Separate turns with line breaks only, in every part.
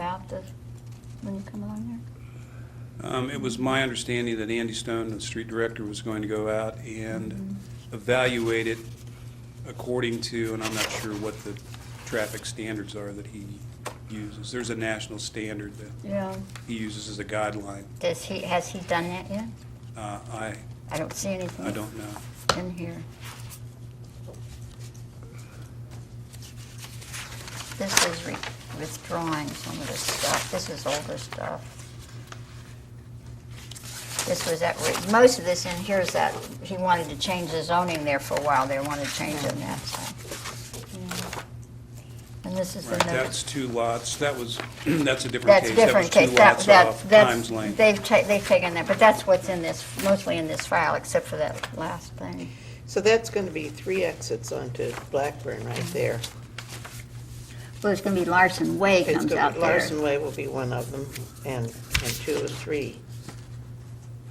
the, when you come along there?
Um, It was my understanding that Andy Stone, the street director, was going to go out and
Mm-hmm.
evaluate it according to, and I'm not sure what the traffic standards are that he uses. There's a national standard that
Yeah.
he uses as a guideline.
Does he, has he done that yet?
Uh, I,
I don't see anything.
I don't know.
In here. This is re- withdrawing some of the stuff. This is older stuff. This was that, re- most of this in here is that, he wanted to change the zoning there for a while. They wanted to change it and that, so. yeah. And this is the
Right,
notice.
that's two lots, that was, that's a different
That's
case.
different case.
That
That,
was two
that,
lots off
that's,
Times Lane.
they've ta, they've taken that, but that's what's in this, mostly in this file, except for that last thing.
So that's going to be three exits onto Blackburn right
Mm-hmm.
there.
Well, it's gonna be Larson Way
It's
comes
gonna-
out there.
Larson Way will be one of them, and, and two and three.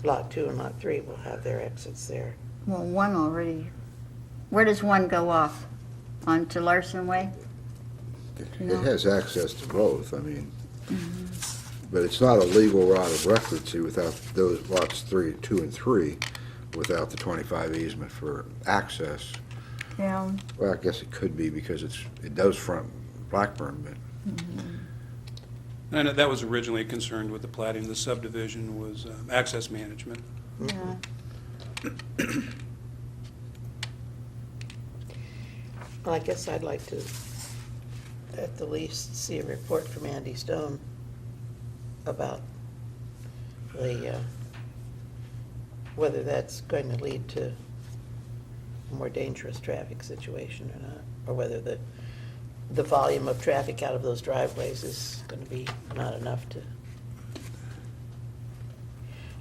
Lot two and lot three will have their exits there.
Well, one already, where does one go off? Onto Larson Way?
It
No.
has access to both, I mean,
Mm-hmm.
but it's not a legal route of record, see, without those lots three, two and three, without the twenty-five easement for access.
Yeah,
Well, I guess it could be because it's, it does front Blackburn, but
I know that was originally concerned with the plating of the subdivision was um, access management.
yeah.
Well, I guess I'd like to, at the least, see a report from Andy Stone about the, uh, whether that's going to lead to a more dangerous traffic situation or not, or whether the, the volume of traffic out of those driveways is going to be not enough to.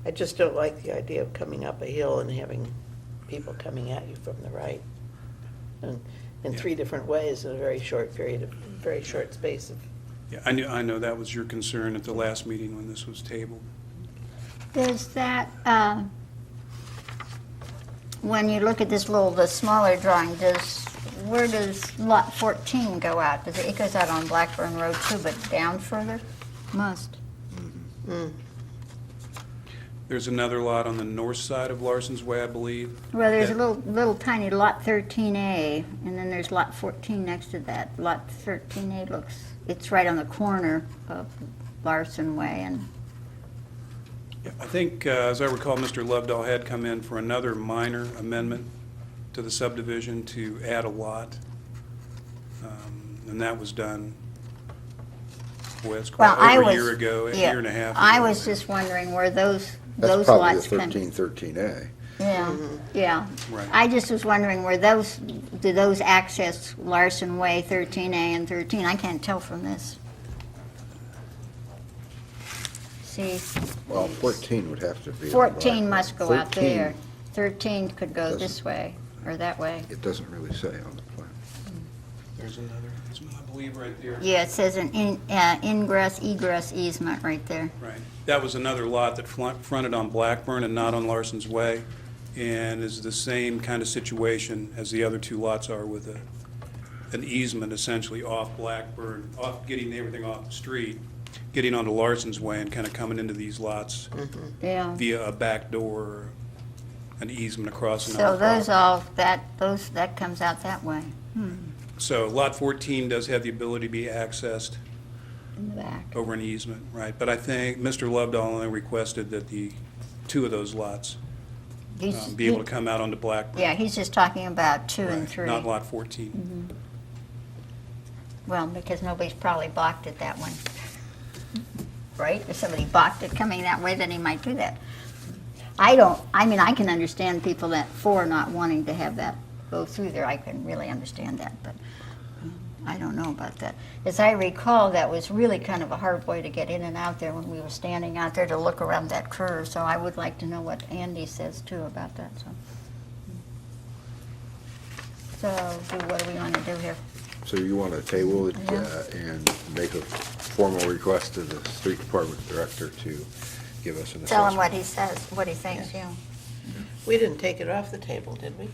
I just don't like the idea of coming up a hill and having people coming at you from the right and in three different ways in a very short period of, very short space of,
Yeah, I knew, I know that was your concern at the last meeting when this was tabled.
Does that, uh, when you look at this little, the smaller drawing, does, where does lot 14 go out? Does it, it goes out on Blackburn Road too, but down further? Must.
There's another lot on the north side of Larson's Way, I believe.
Well, there's a
Yeah.
little, little tiny lot 13A, and then there's lot 14 next to that. Lot 13A looks, it's right on the corner of Larson Way and
Yeah, I think, uh, as I recall, Mr. Lovedoll had come in for another minor amendment to the subdivision to add a lot, Um, and that was done, boy, that's quite
Well, I
over a
was.
year ago, a
yeah,
year and a half.
I
ago.
was just wondering where those,
that's
those
probably the
lots come.
thirteen, thirteen A.
Yeah, yeah.
Right.
I just was wondering where those, do those access Larson Way, 13A and 13? I can't tell from this. See,
Well, fourteen would have to be. on
14
Blackburn.
must go out
13,
there. 13 could go
Doesn't-
this way or that way.
It doesn't really say on the plan.
There's another, there's one, I believe, right there.
Yeah, it says an in- uh, ingress egress easement right there.
Right. That was another lot that flun- fronted on Blackburn and not on Larson's Way, and is the same kind of situation as the other two lots are with a, an easement essentially off Blackburn, off, getting everything off the street, getting onto Larson's Way and kind of coming into these lots
Mm-hmm. Yeah.
via a back door, or an easement across
So
another
those
property.
all, that, those, that comes out that way
So Lot 14 does have the ability to be accessed
in the back.
over an easement, right? But I think Mr. Lovedoll only requested that the, two of those lots
He's-
um, be able to come out onto Blackburn.
Yeah, he's just talking about two and
Right,
three.
Not lot 14.
Well, because nobody's probably blocked it that one. Right? If somebody blocked it coming that way, then he might do that. I don't, I mean, I can understand people that, for not wanting to have that go through there, I can really understand that, but um, I don't know about that. As I recall, that was really kind of a hard way to get in and out there when we were standing out there to look around that curve, so I would like to know what Andy says too about that, so. So, do- what do we want to do here?
So you want to table it
Yeah.
uh, and make a formal request to the street department director to give us an assessment?
Tell him what he says, what he thinks, yeah.
we didn't take it off the table, did we?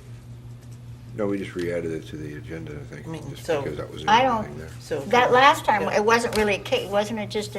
No, we just re-added it to the agenda, I
I mean,
think, just
so-
because that was the
I
only
don't-
thing there.
So
That last time,
Yeah.
it wasn't really a case, wasn't it just